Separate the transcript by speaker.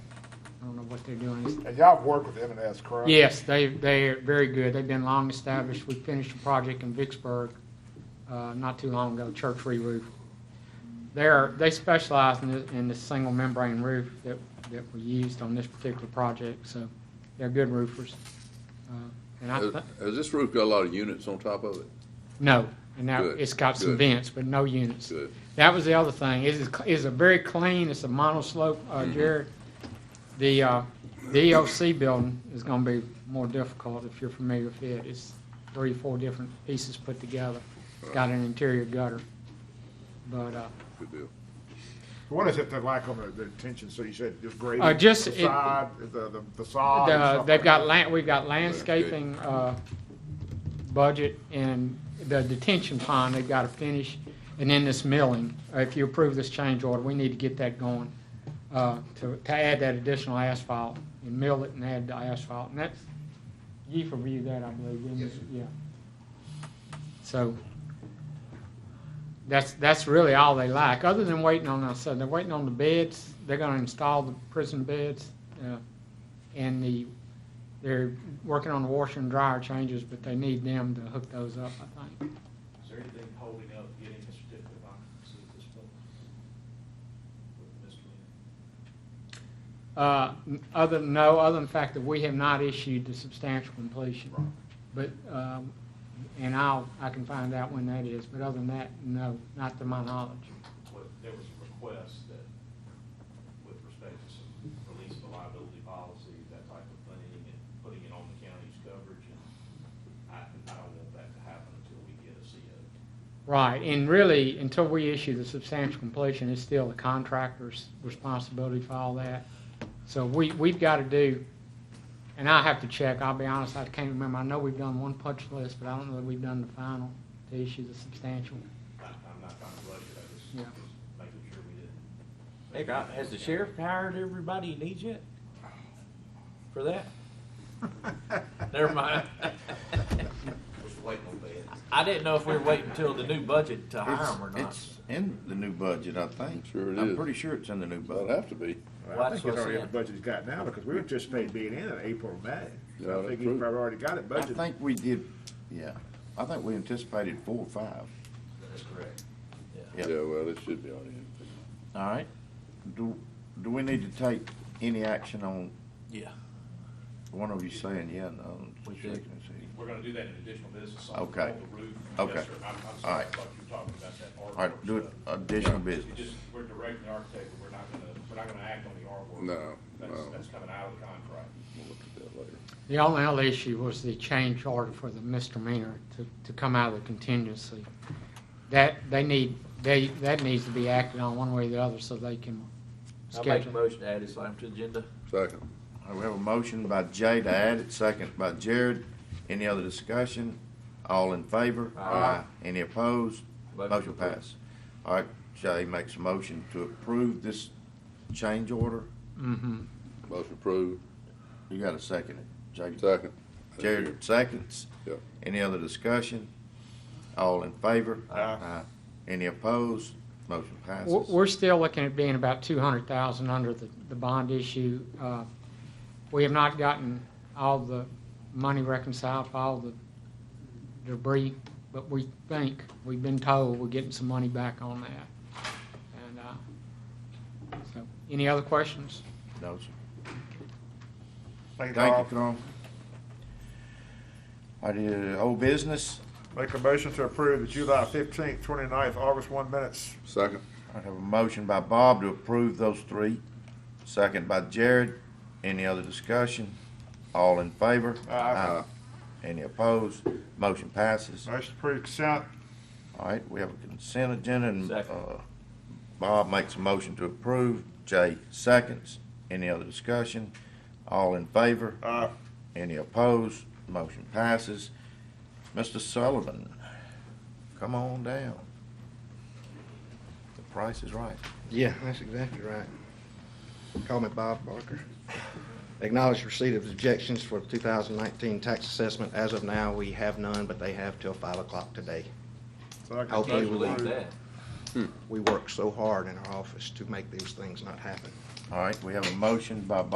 Speaker 1: I don't know what they're doing.
Speaker 2: And y'all have worked with M and S, correct?
Speaker 1: Yes, they, they're very good. They've been long established. We finished a project in Vicksburg uh, not too long ago, church re-roof. They're, they specialize in the, in the single membrane roof that, that we used on this particular project, so they're good roofers. Uh, And I,
Speaker 3: Has
Speaker 1: thi-
Speaker 3: has uh, this roof got a lot of units on top of it?
Speaker 1: no, and now
Speaker 3: Good,
Speaker 1: it's got some
Speaker 3: good.
Speaker 1: vents, but no units.
Speaker 3: Good.
Speaker 1: That was the other thing. It is, is a very clean, it's a monoslope, uh,
Speaker 3: Mm-hmm.
Speaker 1: Jared. The, uh, the EOC building is gonna be more difficult if you're familiar with it. It's three, four different pieces put together. Got an interior gutter. But, uh,
Speaker 3: Good deal.
Speaker 2: What is it that like on the, the tension, so you said just grading?
Speaker 1: Uh, just
Speaker 2: The
Speaker 1: it-
Speaker 2: side, the, the facade? and
Speaker 1: the,
Speaker 2: stuff
Speaker 1: they've
Speaker 2: like
Speaker 1: got
Speaker 2: that?
Speaker 1: land, we've got landscaping, uh, budget and the detention pond, they've gotta finish. And then this milling, Uh, if you approve this change order, we need to get that going, uh, to, to add that additional asphalt and mill it and add the asphalt. And that's, you've reviewed that, I believe, didn't you? Yeah. So, that's, that's really all they lack, other than waiting on, I said, they're waiting on the beds, they're gonna install the prison beds, uh, and the, they're working on the washer and dryer changes, but they need them to hook those up, I think.
Speaker 4: Is there anything holding up getting a certificate of occupancy at this point? With Mr. Lee?
Speaker 1: Uh, n- Other, no, other than the fact that we have not issued the substantial completion. But, um, and I'll, I can find out when that is, but other than that, no, not to my knowledge.
Speaker 4: What, there was a request that, with respect to some release of a liability policy, that type of thing, and putting it on the county's coverage, and I, I don't want that to happen until we get a CO.
Speaker 1: Right, and really, until we issue the substantial completion, it's still the contractor's responsibility for all that. So we, we've got to do, and I have to check, I'll be honest, I can't remember, I know we've done one punch list, but I don't know that we've done the final to issue the substantial.
Speaker 4: I, I'm not trying to rush it, I just,
Speaker 1: Yeah.
Speaker 4: just making sure we didn't.
Speaker 5: Hey, Rob, has the sheriff hired everybody he needs yet? For that? Never mind.
Speaker 4: Just waiting on that.
Speaker 5: I didn't know if we were waiting until the new budget to hire
Speaker 6: It's,
Speaker 5: him or not.
Speaker 6: it's in the new budget, I think.
Speaker 3: Sure it
Speaker 6: I'm
Speaker 3: is.
Speaker 6: pretty sure it's in the new
Speaker 3: That'd
Speaker 6: budget.
Speaker 3: have to be.
Speaker 2: I
Speaker 5: Well, that's
Speaker 2: think
Speaker 5: what
Speaker 2: it's
Speaker 5: I
Speaker 2: already in the
Speaker 5: said.
Speaker 2: budget he's got now, because we anticipate being in in April, or May.
Speaker 3: Yeah,
Speaker 2: So I
Speaker 3: that's
Speaker 2: think he's
Speaker 3: true.
Speaker 2: probably already got it
Speaker 6: I
Speaker 2: budgeted.
Speaker 6: think we did, yeah, I think we anticipated four or five.
Speaker 4: That's correct.
Speaker 6: Yeah.
Speaker 3: Yeah, well, it should be on here.
Speaker 6: All right. Do, do we need to take any action on,
Speaker 5: Yeah,
Speaker 6: one of you saying, yeah, no?
Speaker 5: We did.
Speaker 6: shaking his head.
Speaker 4: We're gonna do that in additional business on on
Speaker 6: Okay.
Speaker 4: the roof.
Speaker 6: Okay.
Speaker 4: Yes, sir. I'm, I'm
Speaker 6: All
Speaker 4: sorry, I
Speaker 6: right.
Speaker 4: thought you were talking about that artwork.
Speaker 6: All right, do it
Speaker 4: stuff.
Speaker 6: additional
Speaker 4: We
Speaker 6: business.
Speaker 4: just, we're directing the architect, but we're not gonna, we're not gonna act on the artwork.
Speaker 3: No,
Speaker 4: That's,
Speaker 3: no.
Speaker 4: that's coming out of the contract.
Speaker 3: We'll look at that later.
Speaker 1: The only other issue was the change order for the misdemeanor to, to come out of the contingency. That, they need, they, that needs to be acted on one way or the other so they can
Speaker 5: I make a
Speaker 1: schedule.
Speaker 5: motion to add this item to the agenda.
Speaker 3: Second.
Speaker 6: All right, We have a motion by Jay to add it, second by Jared. Any other discussion? All in favor? Aye. Any opposed?
Speaker 5: Motion
Speaker 6: Motion
Speaker 5: approved.
Speaker 6: pass. All right, Jay makes a motion to approve this change order.
Speaker 1: Mhm.
Speaker 3: Motion approved.
Speaker 6: You got a second it, Jay?
Speaker 3: Second.
Speaker 6: Jared seconds.
Speaker 3: Yep.
Speaker 6: Any other discussion? All in favor? Aye. Any opposed? Motion
Speaker 1: We're
Speaker 6: passes.
Speaker 1: we're still looking at being about two hundred thousand under the, the bond issue. Uh, We have not gotten all the money reconciled for all the debris, but we think, we've been told we're getting some money back on that. And, uh, so, any other questions?
Speaker 6: No, sir.
Speaker 2: Thank you, Carl.
Speaker 6: Thank you, Carl. I did old business.
Speaker 2: Make a motion to approve the July fifteenth, 29th, August one minutes.
Speaker 3: Second.
Speaker 6: I have a motion by Bob to approve those three, second by Jared. Any other discussion? All in favor?
Speaker 2: Aye.
Speaker 6: Any opposed? Motion passes.
Speaker 2: Motion to approve consent.
Speaker 6: All right, we have a consent agenda, and
Speaker 5: Second.
Speaker 6: uh, Bob makes a motion to approve, Jay seconds. Any other discussion? All in favor?
Speaker 2: Aye.
Speaker 6: Any opposed? Motion passes. Mr. Sullivan, come on down. The price is right.
Speaker 7: Yeah, that's exactly right. Call me Bob Barker. Acknowledge receipt of objections for 2019 tax assessment. As of now, we have none, but they have till 5 o'clock today.
Speaker 2: Second.
Speaker 7: I'll
Speaker 5: Can't
Speaker 7: Thank you.
Speaker 5: believe that.
Speaker 7: We work so hard in our office to make these things not happen.
Speaker 6: All right, we have a motion by